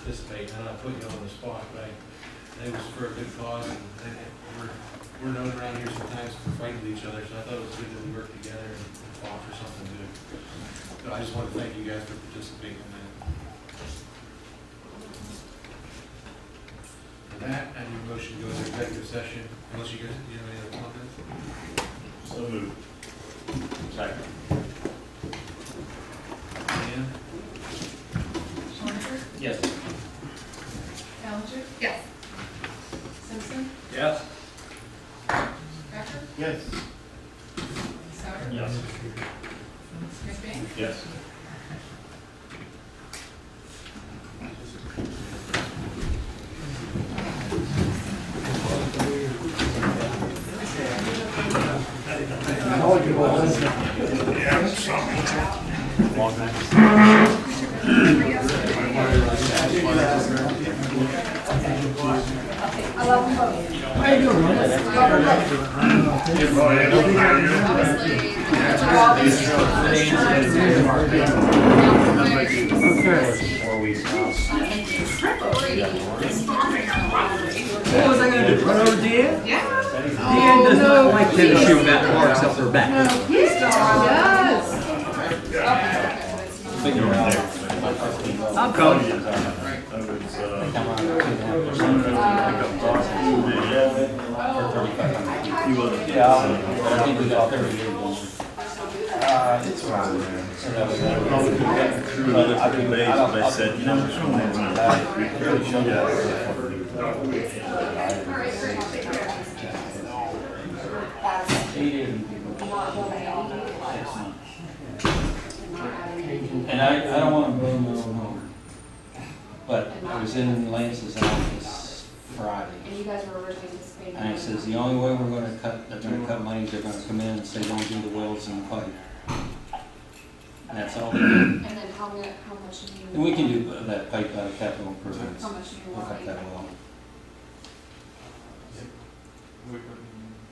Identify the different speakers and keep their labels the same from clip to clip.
Speaker 1: participate, and I put you on the spot, but I- it was for a good cause, and they- we're, we're known around here sometimes for fighting with each other, so I thought it was good that we worked together and fought for something good. But I just want to thank you guys for participating in that. For that, I need a motion to go into executive session, unless you guys, you have any other comments?
Speaker 2: So moved. Second.
Speaker 1: Dan?
Speaker 3: Schwanzer?
Speaker 2: Yes.
Speaker 3: Callender? Yes. Simpson?
Speaker 2: Yes.
Speaker 3: Becker?
Speaker 2: Yes.
Speaker 3: Souter?
Speaker 2: Yes.
Speaker 3: McBane?
Speaker 2: Yes.
Speaker 3: Obviously. Okay.
Speaker 2: Four weeks now.
Speaker 4: What was I gonna do? Run over Dia?
Speaker 3: Yeah.
Speaker 4: Dia does not like
Speaker 5: Did a shoe that marks up her back.
Speaker 3: Yes.
Speaker 2: Figure out. I'm coming. That was, uh, someone that would pick up dogs and food and yeah. He was. Yeah.
Speaker 6: Uh,
Speaker 2: Probably could have gotten through another couple days if they said, you know, it's only one. We really should have.
Speaker 7: He didn't. And I, I don't wanna blow my own horn, but I was in Lance's office Friday.
Speaker 5: And you guys were originally anticipating.
Speaker 7: And he says, the only way we're gonna cut, they're gonna cut money, is they're gonna come in and say, don't do the wells in the pipe. And that's all. And
Speaker 5: And then how mu, how much do you?
Speaker 7: we can do that pipe out of capital improvements.
Speaker 5: How much do you
Speaker 7: We'll
Speaker 5: want?
Speaker 7: cut that well.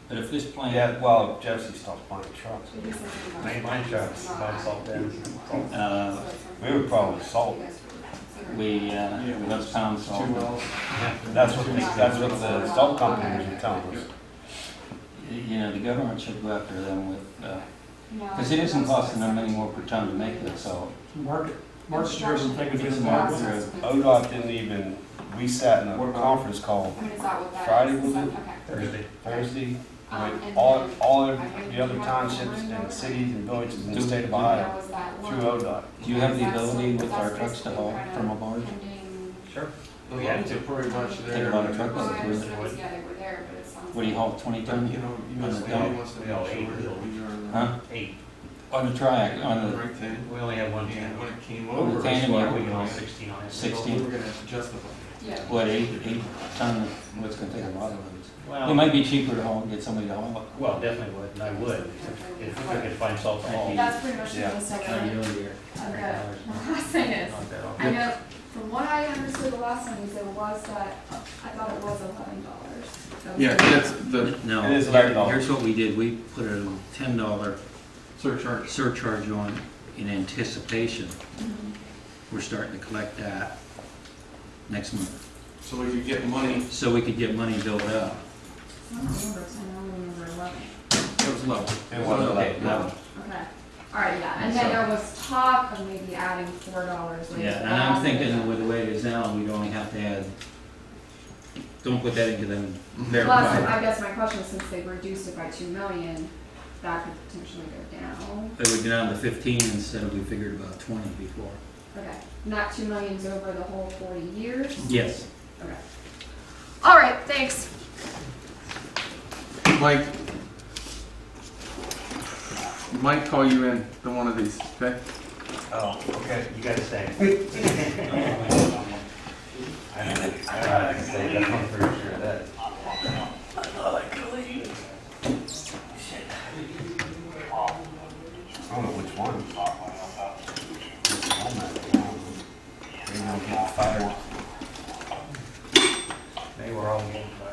Speaker 7: But if this plan.
Speaker 6: Yeah, well, Jesse stopped buying trucks. Mine trucks, mine salt down.
Speaker 7: Uh,
Speaker 6: We would probably salt.
Speaker 7: We, uh, we love pound
Speaker 1: Oh,
Speaker 7: salt.
Speaker 6: That's what, they- that's what the salt companies were telling us.
Speaker 7: You know, the government should go after them with, because it isn't costing them any more per ton to make that salt.
Speaker 4: Market, market driven, take
Speaker 7: It's
Speaker 4: advantage of
Speaker 7: market
Speaker 4: market.
Speaker 7: driven.
Speaker 6: ODOT didn't even, we sat in a conference call
Speaker 5: I mean, is that what that is?
Speaker 6: Friday, was it?
Speaker 5: Okay.
Speaker 1: Thursday.
Speaker 6: Thursday,
Speaker 5: Um,
Speaker 6: like,
Speaker 5: and
Speaker 6: all,
Speaker 5: then
Speaker 6: all of the other townships and cities and villages in the state of
Speaker 5: That
Speaker 6: Ohio
Speaker 5: was that
Speaker 6: through
Speaker 5: one.
Speaker 6: ODOT.
Speaker 7: Do you have the ability with our trucks to haul from a barge?
Speaker 5: Pending-
Speaker 1: We had to pretty much there.
Speaker 7: Think about a truck
Speaker 5: Well, I
Speaker 7: Really?
Speaker 5: understand it was, yeah, they were there, but it sounds.
Speaker 7: What do you haul, twenty ton?
Speaker 1: You know, you
Speaker 7: On
Speaker 1: must,
Speaker 7: the
Speaker 1: he
Speaker 7: dump.
Speaker 1: wants to be all eight.
Speaker 7: Huh?
Speaker 6: Eight.
Speaker 7: On the triac, on the
Speaker 1: uh, Right then,
Speaker 6: We only had one
Speaker 1: and when it came
Speaker 7: Well,
Speaker 1: over.
Speaker 7: the
Speaker 1: it's
Speaker 7: tandem, yeah,
Speaker 1: like,
Speaker 7: we can all
Speaker 6: sixteen on it.
Speaker 1: We
Speaker 7: sixteen,
Speaker 1: were gonna have to justify.
Speaker 5: Yeah.
Speaker 7: what, eight, eight ton, what's gonna take a lot of those? It
Speaker 6: Well,
Speaker 7: might be cheaper to haul, get somebody to haul it.
Speaker 6: well, definitely would, and I would, if I could find salt to haul.
Speaker 5: That's pretty much the
Speaker 6: Yeah.
Speaker 5: list I
Speaker 7: Not
Speaker 5: got.
Speaker 7: really,
Speaker 5: Okay, my last thing is,
Speaker 6: Not that often.
Speaker 5: I know, from what I understood the last time, is it was that, I thought it was eleven dollars.
Speaker 8: Yeah, that's the
Speaker 7: No,
Speaker 6: It is eleven dollars.
Speaker 7: here's what we did, we put a ten dollar
Speaker 8: surcharge.
Speaker 7: surcharge on in anticipation.
Speaker 5: mm-hmm.
Speaker 7: We're starting to collect that next month,
Speaker 8: So we could get money,
Speaker 7: so we could get money built up.
Speaker 5: I don't remember, 'cause I only remember eleven.
Speaker 8: it was low.
Speaker 6: It was
Speaker 7: Okay,
Speaker 6: eleven.
Speaker 7: now-
Speaker 5: Okay, all right, yeah, and then there was talk of maybe adding four dollars later.
Speaker 7: Yeah, and I'm thinking with the way it is now, we'd only have to add, don't put that into them
Speaker 5: Plus,
Speaker 7: verified.
Speaker 5: I guess my question, is, since they reduced it by two million, that could potentially go down.
Speaker 7: It would be down to fifteen instead of we figured about twenty before.
Speaker 5: Okay, not two millions over the whole forty years,
Speaker 7: Yes.
Speaker 5: okay. All right, thanks.
Speaker 8: Mike. Mike, call you in to one of these, okay?
Speaker 6: Oh, okay, you gotta stay. I don't know, I gotta say, that's one for sure, that. I don't know which one. They were all getting